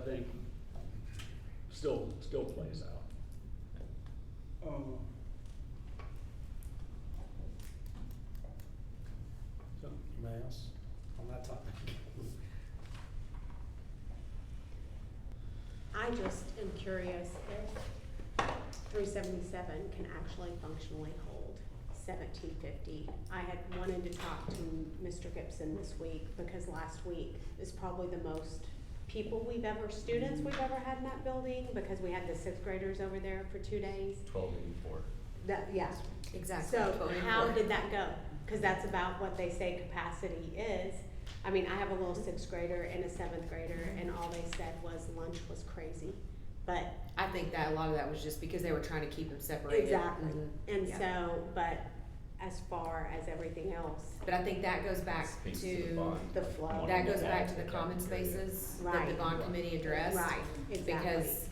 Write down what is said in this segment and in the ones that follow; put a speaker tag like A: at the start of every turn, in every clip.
A: think still, still plays out.
B: Um, So, anybody else on that topic?
C: I just am curious if three seventy-seven can actually functionally hold seventeen fifty. I had wanted to talk to Mr. Gibson this week, because last week is probably the most people we've ever, students we've ever had in that building, because we had the sixth graders over there for two days.
D: Twelve eighty-four.
C: That, yeah.
E: Exactly.
C: So
E: voting
C: how
E: for it.
C: did that go? Cause that's about what they say capacity is. I mean, I have a little sixth grader and a seventh grader and all they said was lunch was crazy. But,
E: I think that a lot of that was just because they were trying to keep them separated.
C: Exactly.
E: Mhm.
C: and
E: Yeah.
C: so, but as far as everything else,
E: But I think that goes back
D: Speaks to the
E: to,
D: bond.
C: the flow.
E: that goes
D: Yeah.
E: back to the common spaces that the
C: Right.
E: bond committee addressed.
C: Right, exactly.
E: Because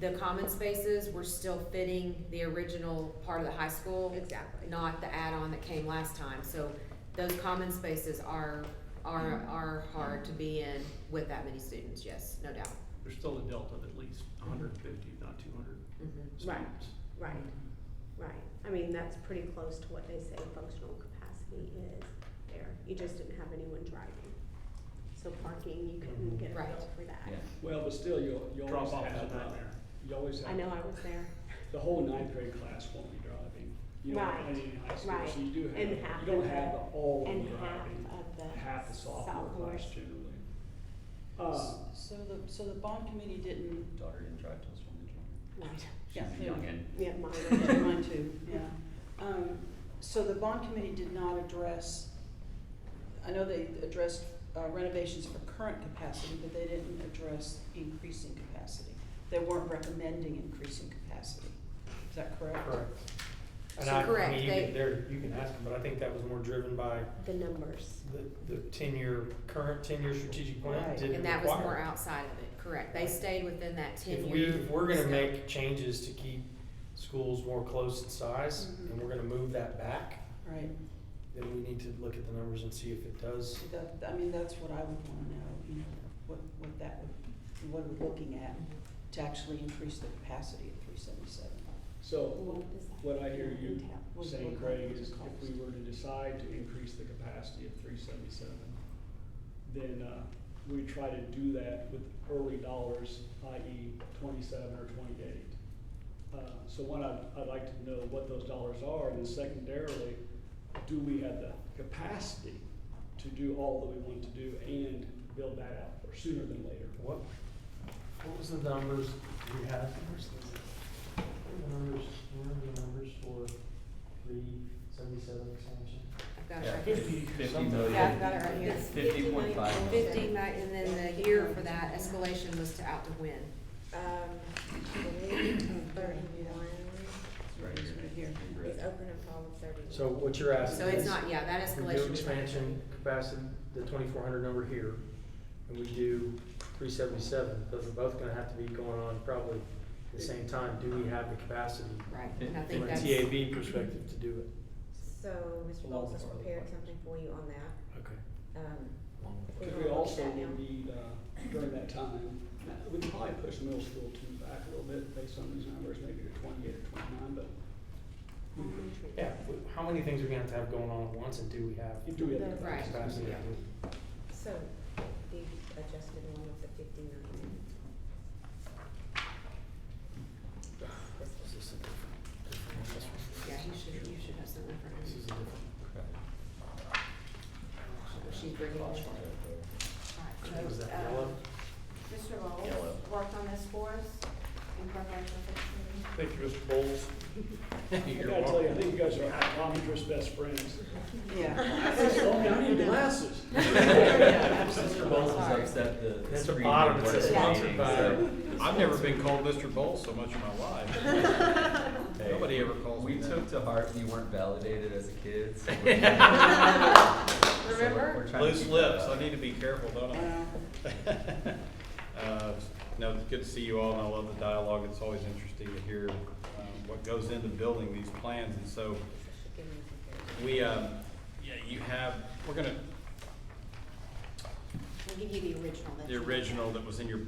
E: the common spaces were still fitting the original part of the high school,
C: Exactly.
E: not the add-on that came last time. So those common spaces are, are, are hard to be in with that many students, yes, no doubt.
F: There's still a delta of at least hundred and fifty, if not two hundred
E: Mhm.
C: Right.
F: students.
C: Right, right. I mean, that's pretty close to what they say functional capacity is there. You just didn't have anyone driving. So parking, you couldn't
B: Mm-hmm.
C: get a
E: Right.
C: bill for that.
B: Well, but still, you'll, you always
F: Drop off is
B: have,
F: a
B: uh,
F: nightmare.
B: you always
C: I
B: have,
C: know I was there.
B: the whole ninth grade class won't be driving. You don't have
C: Right,
B: any in high school,
C: right.
B: so you do
C: And
B: have,
C: half
B: you don't
C: of
B: have
C: the-
B: the all
C: And
B: driving.
C: half of the.
B: Half the sophomore
C: sophomores.
B: class generally. Uh,
G: So the, so the bond committee didn't,
D: Daughter didn't drive till she was
C: Right.
G: yeah,
D: young.
G: they were-
D: Youngin.
C: Yeah,
G: yeah,
C: mine.
G: mine too, yeah. Um, so the bond committee did not address, I know they addressed uh, renovations for current capacity, but they didn't address increasing capacity. They weren't recommending increasing capacity, is that correct?
H: Correct. And
E: So
H: I, I
E: correct,
H: mean, you
E: they-
H: can, there, you can ask them, but I think that was more driven by
C: The numbers.
H: the, the ten-year, current ten-year strategic plan
G: Right.
H: didn't
E: And that was more
H: require.
E: outside of it, correct. They stayed within that ten-year.
H: If we, if we're gonna
E: scope.
H: make changes to keep schools more close in size, and
E: Mm-hmm.
G: Mhm.
H: we're gonna move that back,
G: Right,
H: then we need to look at the numbers and see if it does.
G: so that, I mean, that's what I would wanna know, you know, what, what that would, what we're looking at to actually increase the capacity of three seventy-seven.
B: so
C: What does that
B: what I hear you
C: entail?
G: What-
B: saying,
G: what
B: Craig,
G: was
B: is
G: it
B: if
G: cost?
B: we were to decide to increase the capacity of three seventy-seven, then, uh, we try to do that with early dollars, i.e. twenty-seven or twenty-eight. Uh, so one, I'd, I'd like to know what those dollars are, and then secondarily, do we have the capacity to do all that we want to do and build that out for sooner than later?
H: What, what was the numbers we had? The Numbers, remember the numbers for three seventy-seven expansion?
E: I've got it
D: Yeah,
E: right here.
D: fifty, fifty
H: Something.
D: million.
E: Yeah, I've got it right here.
C: It's
D: Fifty point five.
C: 59.
E: Fifty, ni- and then the year for that escalation was to out to win.
I: Um, thirty-one,
D: It's right here.
G: Right here.
D: In red.
I: it's open and fall of thirty-one.
H: So what you're asking
E: So it's
H: is-
E: not, yeah, that
H: We
E: escalation.
H: do
E: was not-
H: expansion capacity, the twenty-four hundred number here, and we do three seventy-seven, those are both gonna have to be going on probably at the same time, do we have the capacity
E: Right, and I think
H: from a
E: that's,
H: TAB perspective to do it?
I: So Mr. Bowles Oh, has prepared something for you on that.
H: Okay.
I: Um,
B: Because we also will need, uh, during that time, uh, we can probably push middle school two back a little bit based on these numbers, maybe to twenty-eight or twenty-nine, but
C: Mm-hmm.
H: Yeah, w- how many things are we gonna have to have going on at once, and do we have
B: if do we have the
E: Right.
B: capacity?
H: capacity? to do it?
I: so the adjusted one was at fifty-nine. Yes, this
H: Is
I: one.
H: this a different-
E: yeah, you should, you should have something for
H: This is
E: him.
H: a different.
E: She's bringing it.
D: Flash right
E: Right. uh,
H: Was that yellow?
J: Mr. Bowles
D: Yellow.
J: worked on this for us in preparation for this meeting.
H: Thank you, Mr. Bowles.
B: I gotta tell you, I think you guys are optometrist best friends.
G: Yeah.
B: Oh, man, I need glasses.
D: there.
G: absolutely.
D: Mr. Bowles is
J: Sorry.
D: upset the- the.
H: That's the
D: screen
H: bottom,
D: didn't
H: it
D: work
H: says
D: at the
H: sponsored
D: meeting,
H: by-
D: so-
K: I've never been called Mr. Bowles so much in my life.
D: Hey,
K: Nobody ever calls me
D: We
K: that.
D: took to heart you weren't validated as a kid. so we're- so we're-
E: Remember?
D: we're trying to
K: Loose
D: keep
K: lips,
D: that up.
K: I need to be careful, don't
G: Wow.
K: I? Uh, No, it's good to see you all, and I love the dialogue, it's always interesting to hear um, what goes into building these plans, and so
I: This should give me a comparison.
K: we, um, yeah, you have, we're gonna,
E: We'll give you the original. that
K: the
E: you-
K: original that was in your